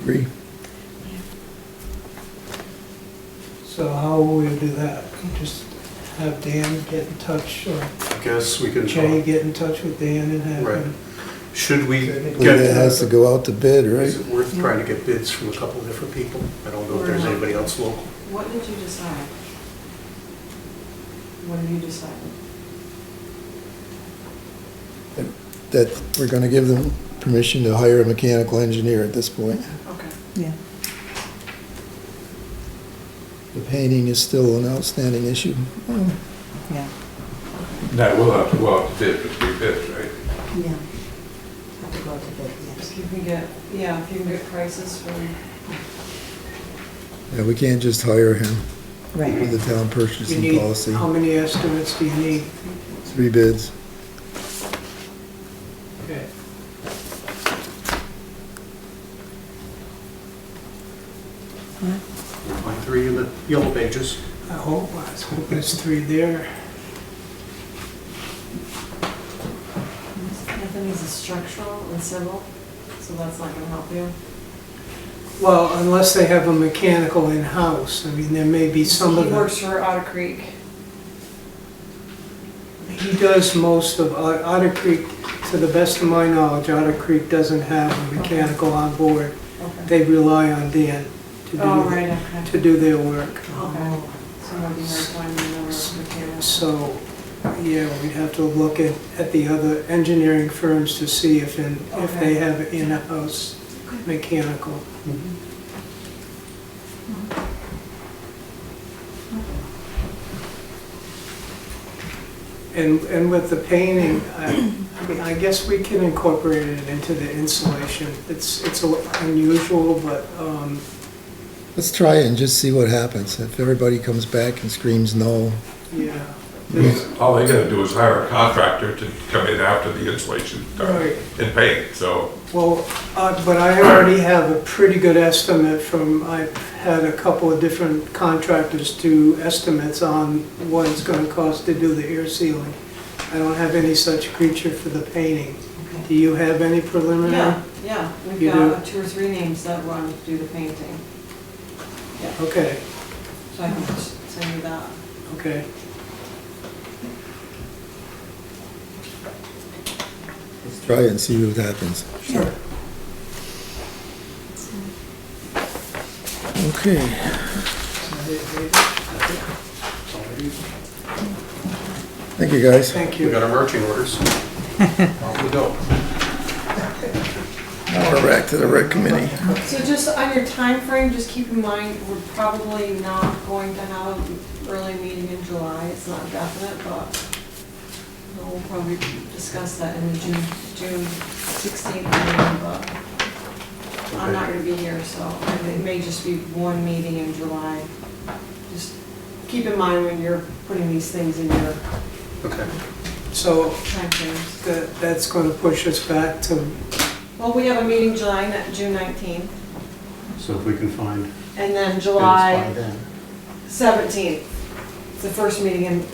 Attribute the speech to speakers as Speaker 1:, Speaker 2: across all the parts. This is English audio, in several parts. Speaker 1: Agree.
Speaker 2: So how will we do that? Just have Dan get in touch, or
Speaker 3: I guess we can
Speaker 2: Jay
Speaker 3: talk.
Speaker 2: get in touch with Dan and have
Speaker 3: Right.
Speaker 2: him.
Speaker 3: Should we
Speaker 1: Well, it
Speaker 3: get,
Speaker 1: has to go out to bid, right?
Speaker 3: is it worth trying to get bids from a couple of different people? I don't know if there's anybody else local.
Speaker 4: What did you decide? What did you decide?
Speaker 1: That we're gonna give them permission to hire a mechanical engineer at this point.
Speaker 4: Okay.
Speaker 5: Yeah.
Speaker 1: The painting is still an outstanding issue.
Speaker 5: Yeah.
Speaker 6: No, we'll have to, we'll have to bid, but we bid, right?
Speaker 7: Yeah. Have to go to bed, yes.
Speaker 4: If you can get, yeah, if you can get prices from,
Speaker 1: Yeah, we can't just hire him
Speaker 5: Right.
Speaker 1: with the town
Speaker 2: You
Speaker 1: purchasing
Speaker 2: need,
Speaker 1: policy.
Speaker 2: how many estimates do you need?
Speaker 1: Three bids.
Speaker 2: Okay.
Speaker 3: My three in the yellow pages.
Speaker 2: I hope, I was hoping there's three there.
Speaker 4: Anthony's is structural and civil, so that's not gonna help you.
Speaker 2: Well, unless they have a mechanical in-house, I mean, there may be some of
Speaker 4: He
Speaker 2: them.
Speaker 4: works for Otter Creek.
Speaker 2: He does most of, Ot- Otter Creek, to the best of my knowledge, Otter Creek doesn't have a mechanical on board.
Speaker 4: Okay.
Speaker 2: They rely on Dan to
Speaker 4: Oh,
Speaker 2: do,
Speaker 4: right, okay.
Speaker 2: to do their work.
Speaker 4: Okay. So maybe you're applying the number of mechanics.
Speaker 2: So, yeah, we'd have to look at, at the other engineering firms to see if, in- if
Speaker 4: Okay.
Speaker 2: they have in-house mechanical. And, and with the painting, I, I mean, I guess we can incorporate it into the insulation. It's, it's a- unusual, but, um,
Speaker 1: Let's try it and just see what happens. If everybody comes back and screams no,
Speaker 2: yeah.
Speaker 6: All they gotta do is hire a contractor to come in after the insulation's done
Speaker 2: Right.
Speaker 6: and paint, so.
Speaker 2: Well, uh, but I already have a pretty good estimate from, I've had a couple of different contractors do estimates on what it's gonna cost to do the air sealing. I don't have any such creature for the painting. Do you have any preliminary?
Speaker 4: Yeah, yeah, we've
Speaker 2: You
Speaker 4: got two or three names that want to do the painting,
Speaker 2: Okay,
Speaker 4: so I can just send you that.
Speaker 2: okay.
Speaker 1: let's try it and see what happens.
Speaker 2: Sure.
Speaker 1: Okay, thank you, guys.
Speaker 2: Thank
Speaker 3: We
Speaker 2: you.
Speaker 3: got our marching orders. Off we go.
Speaker 1: Now we're back to the rec committee.
Speaker 4: So just on your time frame, just keep in mind, we're probably not going to have an early meeting in July, it's not definite, but we'll probably discuss that in the June, June sixteenth meeting, but I'm not gonna be here, so it may just be one meeting in July. Just keep in mind when you're putting these things in your
Speaker 3: Okay.
Speaker 2: So
Speaker 4: timeframes.
Speaker 2: that, that's gonna push us back to,
Speaker 4: Well, we have a meeting July, ni- June nineteenth,
Speaker 3: So if we can find bids
Speaker 4: and then July.
Speaker 3: by then.
Speaker 4: 17th, the first meeting, and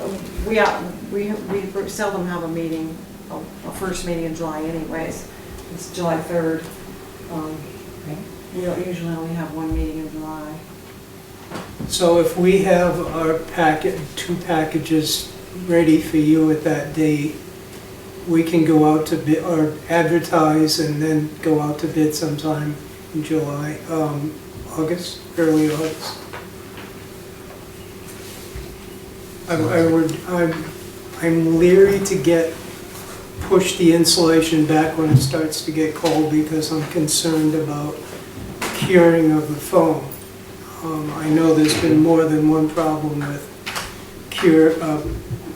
Speaker 4: we, uh, we we seldom have a meeting, a a first meeting in July anyways. It's July 3rd. Um, We don't usually only have one meeting in July.
Speaker 2: so if we have our packet, two packages ready for you at that date, we can go out to bid, or advertise and then go out to bid sometime in July, um, August, early August. I, I would, I'm, I'm leery to get, push the insulation back when it starts to get cold because I'm concerned about curing of the foam. Um, I know there's been more than one problem with cure, uh,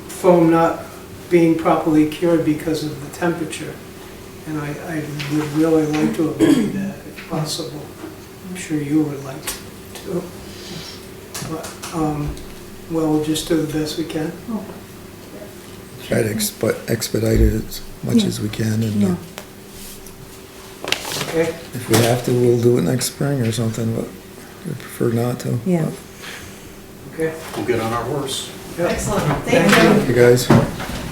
Speaker 2: foam not being properly cured because of the temperature. And I, I would really like to avoid that if possible. I'm sure you would like to. But, um, well, we'll just do the best we can.
Speaker 1: Try to expe- expedite it as much as we can, and uh,
Speaker 5: Yeah.
Speaker 2: Okay,
Speaker 1: if we have to, we'll do it next spring or something, but we prefer not to.
Speaker 5: Yeah.
Speaker 2: okay.
Speaker 3: We'll get on our horse.
Speaker 2: Yep.
Speaker 4: Excellent,
Speaker 2: Thank
Speaker 4: thank you.
Speaker 1: You guys.